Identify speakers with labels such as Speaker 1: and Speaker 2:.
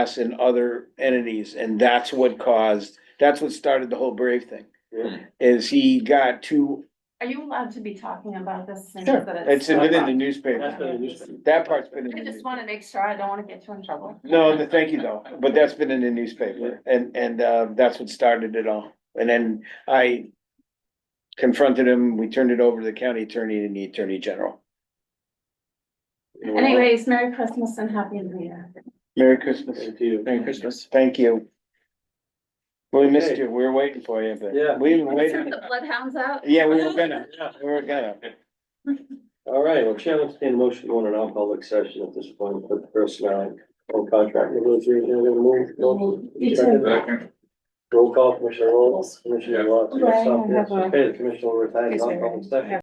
Speaker 1: us and other entities, and that's what caused, that's what started the whole Brave thing.
Speaker 2: Yeah.
Speaker 1: Is he got too,
Speaker 3: Are you allowed to be talking about this? since
Speaker 1: Sure,
Speaker 3: that
Speaker 1: it's been in the
Speaker 2: That's
Speaker 1: newspaper,
Speaker 2: been in the newspaper.
Speaker 1: that part's been in
Speaker 3: I
Speaker 1: the
Speaker 3: just
Speaker 1: newspaper.
Speaker 3: wanna make sure, I don't wanna get you in trouble.
Speaker 1: No, th- thank you though, but that's been in the newspaper, and, and, uh, that's what started it all, and then I confronted him, we turned it over to the county attorney and the attorney general.
Speaker 3: Anyways, Merry Christmas and Happy New Year.
Speaker 1: Merry Christmas.
Speaker 2: Thank you.
Speaker 4: Merry Christmas.
Speaker 1: Thank you. We missed
Speaker 2: Okay.
Speaker 1: you, we were waiting for you, but
Speaker 2: Yeah.
Speaker 1: we were
Speaker 3: Serve
Speaker 1: waiting,
Speaker 3: the bloodhounds out?
Speaker 1: yeah, we were gonna,
Speaker 2: Yeah.
Speaker 1: we were gonna.
Speaker 2: All right, well, Chair, let's entertain a motion going in non-public session at this point for personnel and contract
Speaker 3: You too.
Speaker 2: negotiation. Roll call, Commissioner Rolls, Commissioner Watson,
Speaker 3: Right, I
Speaker 2: yourself, yes,
Speaker 3: have a-
Speaker 2: okay, the Commissioner retired,
Speaker 3: Yes, I
Speaker 2: non-public session.